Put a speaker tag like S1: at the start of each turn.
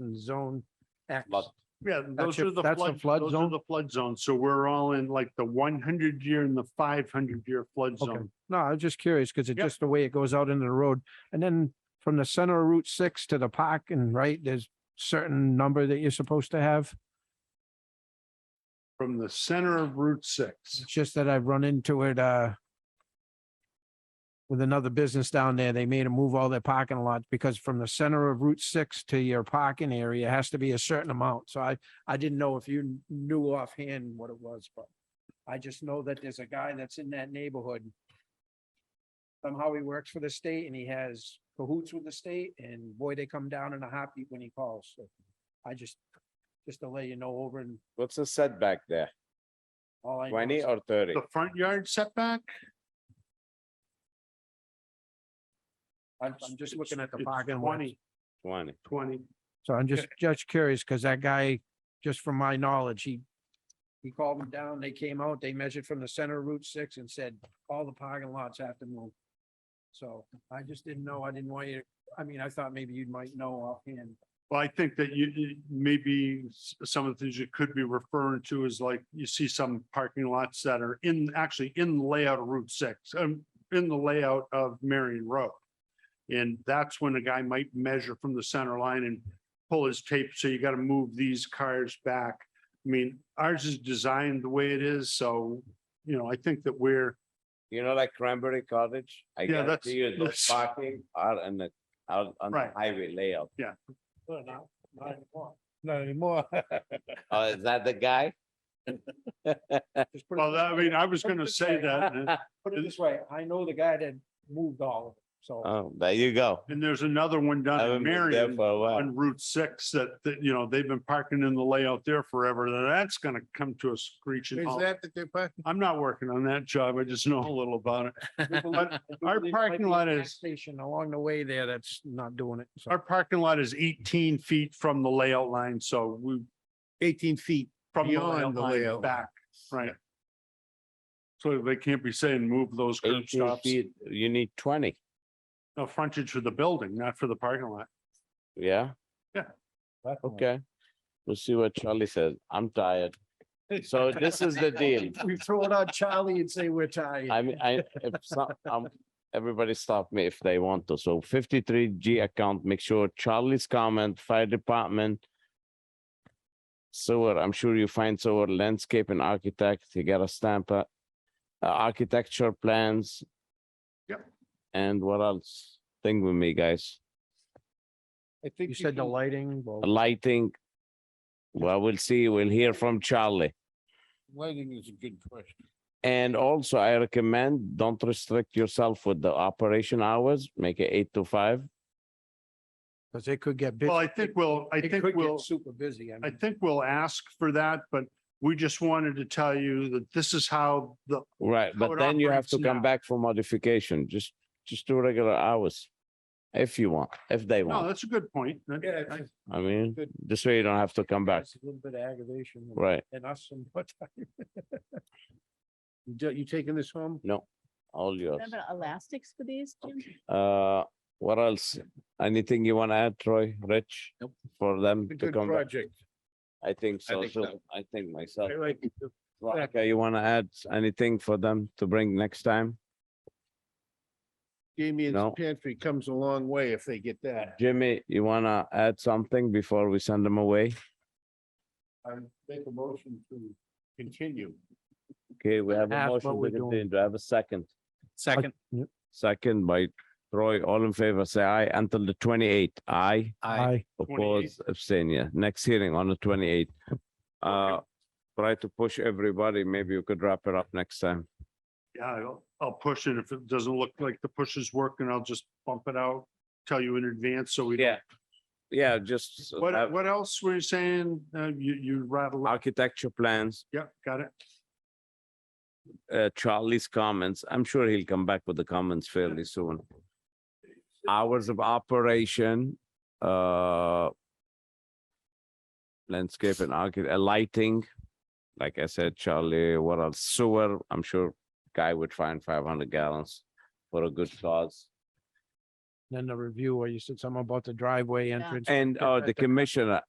S1: and zone X.
S2: Lot.
S3: Yeah, those
S1: your-
S3: are the
S1: that's the
S3: flood,
S1: flood
S3: those
S1: zone?
S3: are the flood zones. So we're all in like the one hundred year and the five hundred year flood
S1: Okay.
S3: zone.
S1: No, I was just curious because it's
S3: Yep.
S1: just the way it goes out into the road. And then from the center of Route six to the park and right, there's certain number that you're supposed to have.
S3: From the center of Route six.
S1: It's just that I've run into it, uh, with another business down there. They made them move all their parking lots because from the center of Route six to your parking area has to be a certain amount. So I, I didn't know if you knew offhand what it was, but I just know that there's a guy that's in that neighborhood. Somehow he works for the state and he has cahoots with the state and boy, they come down in a heartbeat when he calls. So I just, just to let you know over and
S2: What's the setback there?
S1: all I. know
S2: Twenty
S1: is-
S2: or thirty?
S3: The front yard setback?
S1: I'm, I'm just looking at the
S3: It's
S1: parking lot.
S3: Twenty,
S2: Twenty.
S3: twenty.
S1: So I'm just, just curious, because that guy, just from my knowledge, he, he called them down, they came out, they measured from the center of Route six and said, all the parking lots have to move. So I just didn't know, I didn't want you, to- I mean, I thought maybe you might know offhand.
S3: Well, I think that you- you, maybe s- some of the things you could be referring to is like, you see some parking lots that are in, actually in the layout of Route six, um, in the layout of Marion Road. And that's when a guy might measure from the center line and pull his tape, so you gotta move these cars back. I mean, ours is designed the way it is, so, you know, I think that we're,
S2: You know, like Cranberry Cottage? I
S3: Yeah, that's-
S2: guarantee you, those
S3: that's-
S2: parking are in the, out on the
S3: Right.
S2: highway layout.
S1: Not anymore. Not anymore.
S2: Oh, is that the guy?
S1: Just put
S3: well,
S1: it,
S3: I mean, I was gonna say that. and-
S1: put it this way, I know the guy that moved all of it, so.
S2: Oh, there you go.
S3: And there's another one
S2: I
S3: down in
S2: haven't been there
S3: Marion
S2: for a while.
S3: on Route six that, that, you know, they've been parking in the layout there forever. Then That's gonna come to a screeching halt.
S1: the they're parking?
S3: I'm not working on that job. I just know a little about it. But our parking lot is-
S1: Station along the way there that's not doing it, so.
S3: Our parking lot is eighteen feet from the layout line, so we. Eighteen feet. From the layout
S1: beyond the
S3: line
S1: layout.
S3: back, right. So they can't be saying move those curb
S2: Eighteen
S3: stops,
S2: feet, you need twenty,
S3: no frontage for the building, not for the parking lot.
S2: yeah?
S3: Oh.
S1: Okay.
S2: Okay. We'll see what Charlie says. I'm tired. So this is the deal.
S1: We throw it on Charlie and say we're tired.
S2: I mean, I, if some, um, everybody stop me if they want to. So fifty-three G account, make sure Charlie's comment, fire department. Sewer, I'm sure you find sewer landscape and architect, you got a stamp, uh, uh, architecture plans.
S3: Yep.
S2: And what else? Think with me, guys.
S4: I think
S1: You said the
S4: can-
S1: lighting, well,
S2: Lighting. Well, we'll see. We'll hear from Charlie.
S4: Lighting is a good question.
S2: And also I recommend, don't restrict yourself with the operation hours, make it eight to five.
S1: because it could get busy.
S3: Well, I think we'll, I
S1: It
S3: think
S1: could get
S3: we'll.
S1: Super busy. I
S3: I
S1: mean,
S3: think we'll ask for that, but we just wanted to tell you that this is how the,
S2: Right,
S3: how
S2: but
S3: it
S2: then you have
S3: operates
S2: to come
S3: now.
S2: back for modification, just, just do regular hours. If you want, if they
S3: no,
S2: want,
S3: that's a good point. That-
S1: Yeah,
S3: I-
S1: it's
S2: I mean,
S1: good.
S2: this way you don't have to come back,
S1: it's A little bit of aggravation. and-
S2: right?
S1: And us and what time. You do- You taking this home?
S2: All yours.
S5: Remember elastics for these, Jim?
S2: Uh, what else? Anything you want to add, Troy, Rich?
S4: Nope.
S2: For them
S4: It's a
S2: to
S4: good
S2: come back?
S4: project.
S2: I think so,
S4: think
S2: too.
S4: so.
S2: I think myself.
S4: I like the
S2: Veronica, you want to add anything for them to bring next time? No.
S4: Damien's pantry comes a long way if they get that.
S2: Jimmy, you want to add something before we send them away?
S4: I make a motion to continue.
S2: Okay, we have a
S1: Ask what
S2: motion
S1: we're
S2: to
S1: doing.
S2: continue. Do I have a second?
S1: Second.
S2: Second by Troy, all in favor, say aye until the twenty-eighth. Aye,
S1: I,
S2: oppose, abstain, yeah. Next hearing on the twenty-eighth. Uh, try to push everybody. Maybe you could wrap it up next time.
S3: Yeah, I'll, I'll push it. If it doesn't look like the push is working, I'll just bump it out, tell you in advance, so we. don't-
S2: Yeah. Yeah, just uh,
S3: What,
S2: have
S3: what else were you saying? Uh, you, you rattle,
S2: architecture plans,
S3: yeah, got it.
S2: uh, Charlie's comments. I'm sure he'll come back with the comments fairly soon. Hours of operation, uh, landscape and archi- uh, lighting. Like I said, Charlie, what else? Sewer, I'm sure guy would find five hundred gallons for a good cause.
S1: Then the reviewer, you said something about the driveway entrance.
S2: And, uh, the commissioner,